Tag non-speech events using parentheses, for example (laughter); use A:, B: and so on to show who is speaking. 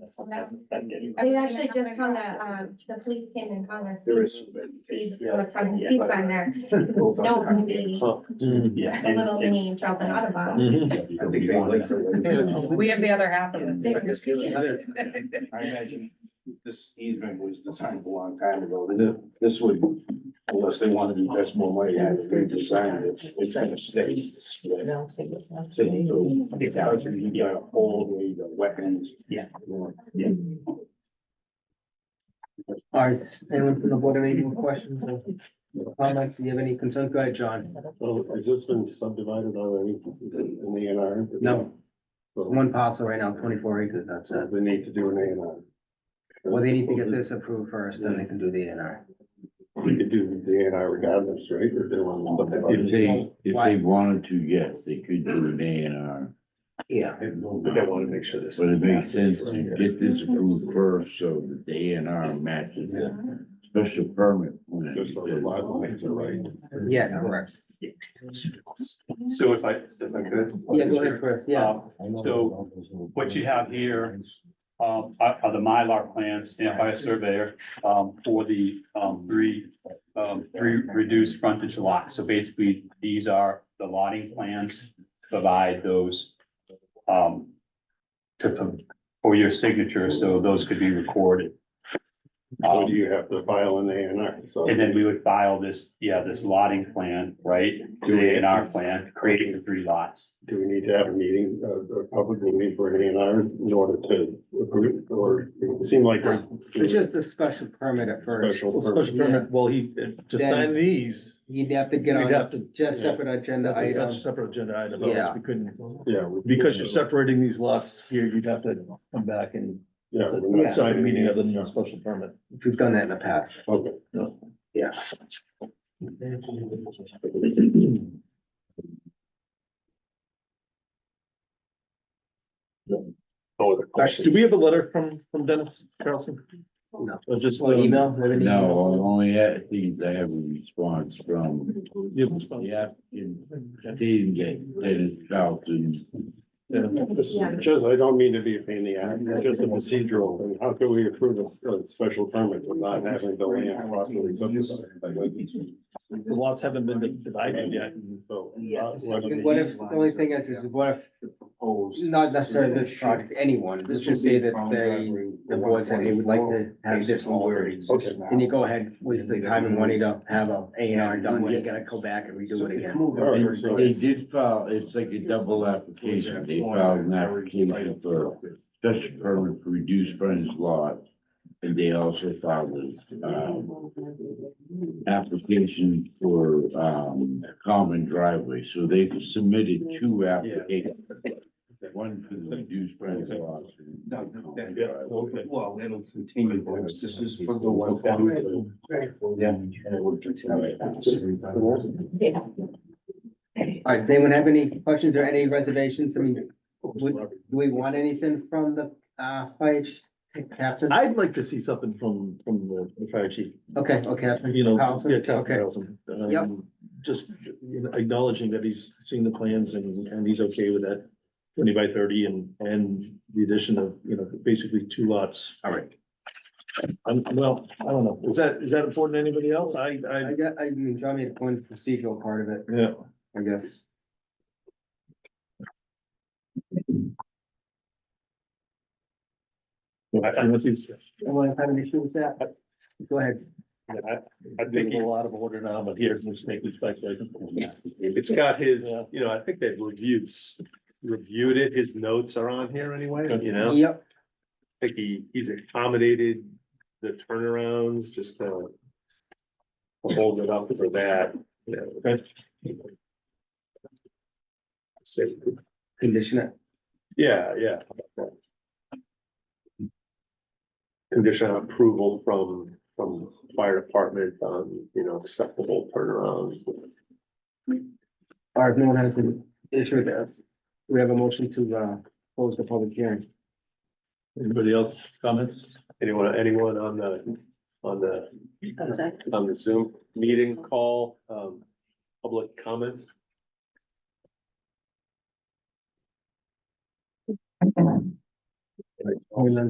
A: this one hasn't been getting.
B: They actually just hung a, um, the police came and hung a
C: There
B: speed,
C: is.
B: speed,
C: yeah.
B: electronic
C: Yeah.
B: speed
C: (laughs)
B: sign there. Don't wanna be
D: Mm-hmm.
A: Yeah.
B: a
A: and-
B: little
A: and-
B: mini Charlton Autobahn.
C: I think they like
E: (laughs)
C: to-
F: We have the other half of
C: I imagine this easement was designed a long time ago, Th- this would, unless they wanted to invest more money, had to redesign it, it's gonna stay. split. So, it's out, so you got a whole, you got wetlands.
A: Yeah.
C: Yeah.
E: All right, anyone from the board have any more questions or comments? Do you have any concerns? Go ahead, John.
G: Well, has this been subdivided already in the A and R?
E: No,
G: So
E: one parcel right now, twenty-four acres, that's it.
G: they need to do an A and R.
E: Well, they need to get this approved first, then they can do the A and R.
G: We could do the A and R regardless, right? Or they want to.
H: If they, if
E: Why?
H: they wanted to, yes, they could do an A and R,
E: Yeah.
C: But I wanna make sure this.
H: but it makes sense to get this approved first, so that the A and R matches the special permit. when it-
G: Just so the lot lines are right.
E: Yeah, correct.
D: So if I, if I could.
E: Yeah, go ahead, Chris, yeah.
G: Uh,
D: Um, So what you have here um, are are the Mylar plans stamped by a surveyor um, for the um, three, um, three reduced frontage lots. So basically, these are the lotting plans, to provide those um, to, for your signature, so those could be recorded.
E: Um,
D: Um,
G: So do you have to file an A and R? So
D: And then we would file this, yeah, this lotting plan, right?
G: Do we-
D: The A and R plan, creating the three lots.
G: do we need to have a meeting, a, a public meeting for an A and R in order to approve it? Or it seemed like. we're-
E: It's just a special permit at first.
G: Special
I: Special permit, well, he, uh, to
E: Then-
I: sign these,
E: You'd have to get
I: we'd
E: on
I: have to,
E: just separate agenda
I: that's
E: item.
I: such a separate agenda item, otherwise we couldn't.
G: Yeah. we-
I: Because you're separating these lots here, you'd have to come back and
G: Yeah.
I: it's a
G: we're not
I: side
G: signing
I: meeting
G: it.
I: other than your special permit.
E: We've done that in the past.
G: Okay.
E: Yeah.
G: No other
I: Do
G: questions?
I: we have a letter from, from Dennis Carlson?
E: No.
I: Or just
E: Well,
I: um,
E: email, maybe an email.
H: No, the only other things I have a response from,
I: you have a response?
H: yeah, stating that Dennis Charlton's
G: Yeah, this is Just, I don't mean to be a pain in the ass, it's just a procedural thing. How can we approve a, a special permit for not having the land properly subdivided?
I: The lots haven't been divided yet.
G: So,
E: Yeah,
G: uh,
E: I mean, what if, the only thing is, is what if, not necessarily this project, anyone, let's just say that they, the board said, hey, we'd like to have this one worded.
G: Okay.
E: And you go ahead, waste the time and money to have a A and R done, you gotta go back and redo it again.
G: All right, so-
H: They did file, it's like a double application, they filed an application for special permit for reduced frontage lot. And they also filed a, um, application for, um, a common driveway, so they submitted two applications. One for the reduced frontage lot. and one for the common
G: Yeah,
H: driveway.
G: okay.
C: Well, it'll continue, folks. this is for the one.
E: All right, does anyone have any questions or any reservations? I mean, would, do we want anything from the, uh, fire chief captain?
I: I'd like to see something from, from the the fire chief.
E: Okay, okay,
I: you know,
E: Carlson?
I: yeah, Cal
E: Okay.
I: Carlson. um,
E: Yep.
I: Just you know, acknowledging that he's seen the plans and, and he's okay with that twenty by thirty and, and the addition of, you know, basically two lots.
E: all right.
I: I'm, well, I don't know, is that, is that important to anybody else? I, I,
E: I got, I mean, John made a point, procedural part of it,
I: yeah.
E: I guess.
I: I- I don't think it's-
E: Anyone have an issue with that? Go ahead.
I: I- I'm thinking a lot of order now, but here's, let's make these facts like.
J: It's got his,
I: Yeah.
J: you know, I think they've reviewed, s- reviewed it, his notes are on here anyway, you know,
E: Yep.
J: I think he, he's accommodated the turnarounds, just to hold it up for that, you know. So,
E: Condition it.
J: yeah, yeah. Condition of approval from, from fire department on, you know, acceptable turnarounds.
E: Or if no one has an issue with that, we have a motion to, uh, close the public hearing.
I: Anybody else comments?
J: Anyone, anyone on the, on the on the Zoom meeting call, um, public comments.
E: And then